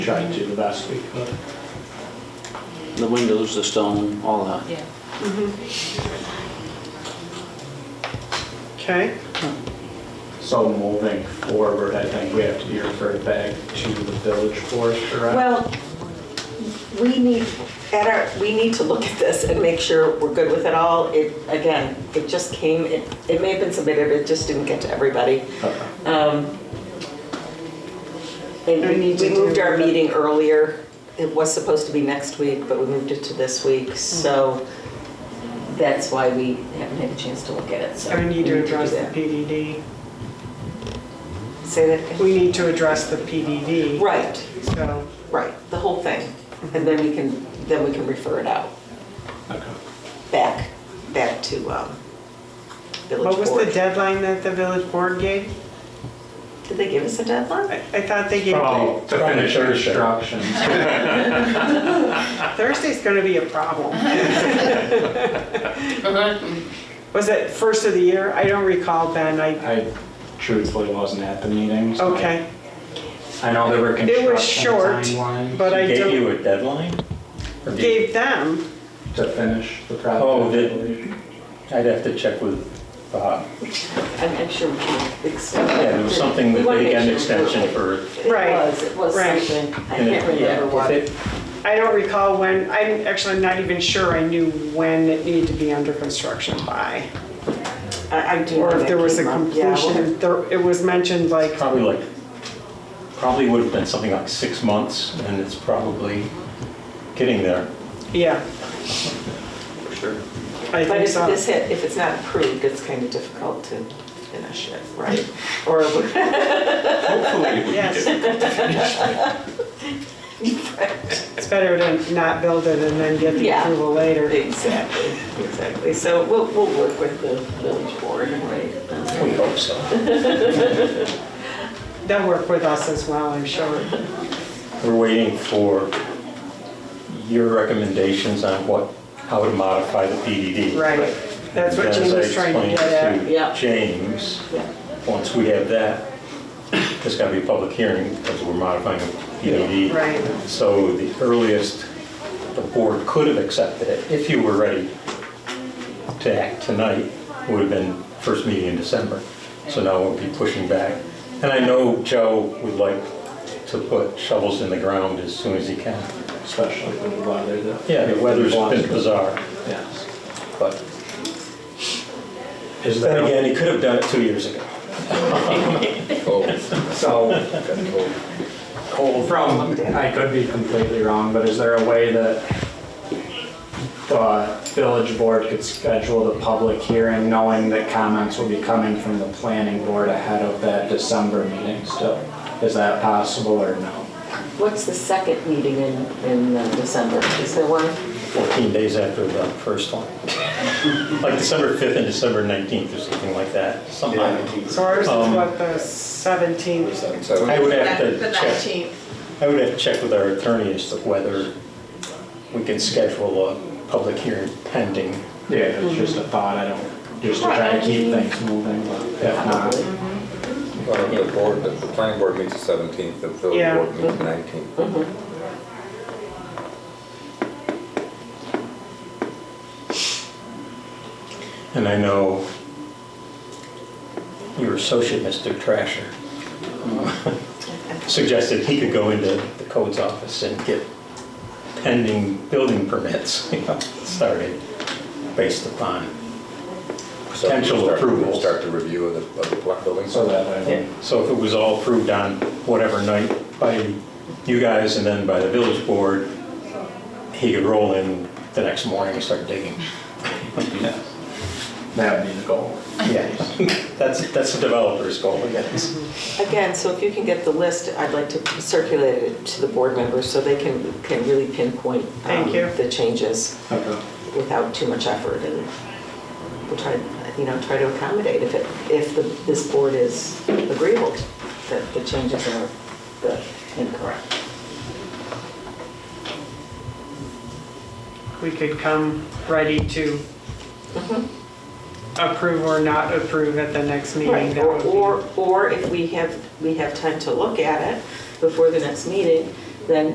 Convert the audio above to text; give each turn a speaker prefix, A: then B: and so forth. A: tried to the best we could.
B: The windows, the stone, all that.
C: Yeah,
D: Okay,
A: So moving forward, I think we have to be referred back to the village forester.
E: Well, we need, at our, we need to look at this and make sure we're good with it all. It, again, it just came, it, it may have been submitted, but it just didn't get to everybody.
A: Okay.
E: Um, And
D: We
E: we
D: need to
E: we moved
D: do-
E: our meeting earlier. It was supposed to be next week, but we moved it to this week, so that's why we haven't had a chance to look at it, so.
D: so we need to
E: we do
D: address the
E: that.
D: PDD.
E: Say that again.
D: We need to address the PDD,
E: Right,
D: so,
E: right, the whole thing. And then we can, then we can refer it out.
A: Okay.
E: back, back to um, Village Board.
D: what was the deadline that the village board gave?
E: Did they give us a deadline?
D: I I thought they gave,
A: Oh, to finish
F: Probably Thursday.
A: instructions.
D: Thursday's gonna be a problem. Was it first of the year? I don't recall, Ben, I,
A: I truthfully wasn't at the meeting. so I-
D: okay.
A: I know there were
D: It
A: construction
D: was short,
A: timelines
D: but I
F: Gave
D: don't,
F: you a deadline? Or did-
D: gave them,
A: to finish the project.
F: Oh, did- I'd have to check with uh, Bob.
E: I'm I'm sure we can extend. it.
F: Yeah, there was something
E: We
F: that
E: wanna
F: they
E: make
F: got an
E: sure we're-
F: extension for.
E: It
D: Right,
E: was, it was
D: right.
E: something. I
F: and
E: can't
F: it- yeah,
E: remember
F: if
E: what.
F: it-
D: I don't recall when, I'm actually not even sure I knew when it needed to be under construction by.
E: I I do. know
D: Or if
E: that
D: there was a
E: came up. Yeah, we'll
D: completion, there- it was mentioned like,
F: Probably like, probably would have been something like six months, and it's probably getting there.
D: yeah,
B: For sure.
D: I
E: have- But
D: think
E: if
D: so.
E: this hit, if it's not approved, it's kind of difficult to finish it, right? Or
F: Hopefully.
D: Yes. It's better to not build it and then get the
E: Yeah.
D: approval later.
E: Exactly, exactly. So we'll, we'll work with the Village Board, right?
F: We hope so.
D: They'll work with us as well, I'm sure.
F: We're waiting for your recommendations on what, how to modify the PDD.
D: Right. That's what
F: As I
D: Jean was trying to
F: explained
D: get at.
F: to
E: Yeah.
F: James,
E: Yeah.
F: once we have that, there's got to be a public hearing because we're modifying a PDD.
D: Right.
F: E. So the earliest the board could have accepted it, if you were ready to act tonight, would have been first meeting in December. So now we'll be pushing back. And I know Joe would like to put shovels in the ground as soon as he can.
A: Especially when the weather. the-
F: Yeah, the weather's been bizarre,
A: Yes.
F: but
A: Is
F: then
A: there,
F: again, he could have done it two years ago.
A: so From, I could be completely wrong, but is there a way that the village board could schedule the public hearing knowing that comments will be coming from the planning board ahead of that December meeting still? Is that possible or no?
E: What's the second meeting in, in uh, December? Is there one?
F: 14 days after the first one. Like December 5th and December 19th or something like that, sometime.
D: So ours is
F: Um,
D: what, the 17th?
F: I would have
G: The
F: to
G: the
F: check,
G: 19th.
F: I would have to check with our attorney as to whether we can schedule a public hearing pending.
A: Yeah, it's just a thought, I don't, just to try to keep things moving, but if not,
H: Well, Uh, the board, the the planning board meets the seventeenth, the
D: Yeah.
H: village board meets the nineteenth.
F: And I know your associate, Mr. Trasher, suggested he could go into the codes office and get pending building permits, you know, started based upon Potential approvals.
H: Start the review of the, of the block buildings.
A: so that I don't.
F: So if it was all approved on whatever night by you guys and then by the village board, he could roll in the next morning and start digging.
A: That would be the goal.
F: Yeah, that's, that's the developer's goal, I guess.
E: Again, so if you can get the list, I'd like to circulate it to the board members so they can, can really pinpoint. um,
D: Thank you.
E: The changes
A: Okay.
E: without too much effort and we'll try, you know, try to accommodate if it, if the, this board is agreeable that the changes are the incorrect.
D: We could come ready to
E: Mm-hmm.
D: approve or not approve at the next meeting.
E: Right,
D: That
E: or,
D: would be-
E: or or if we have, we have time to look at it before the next meeting, then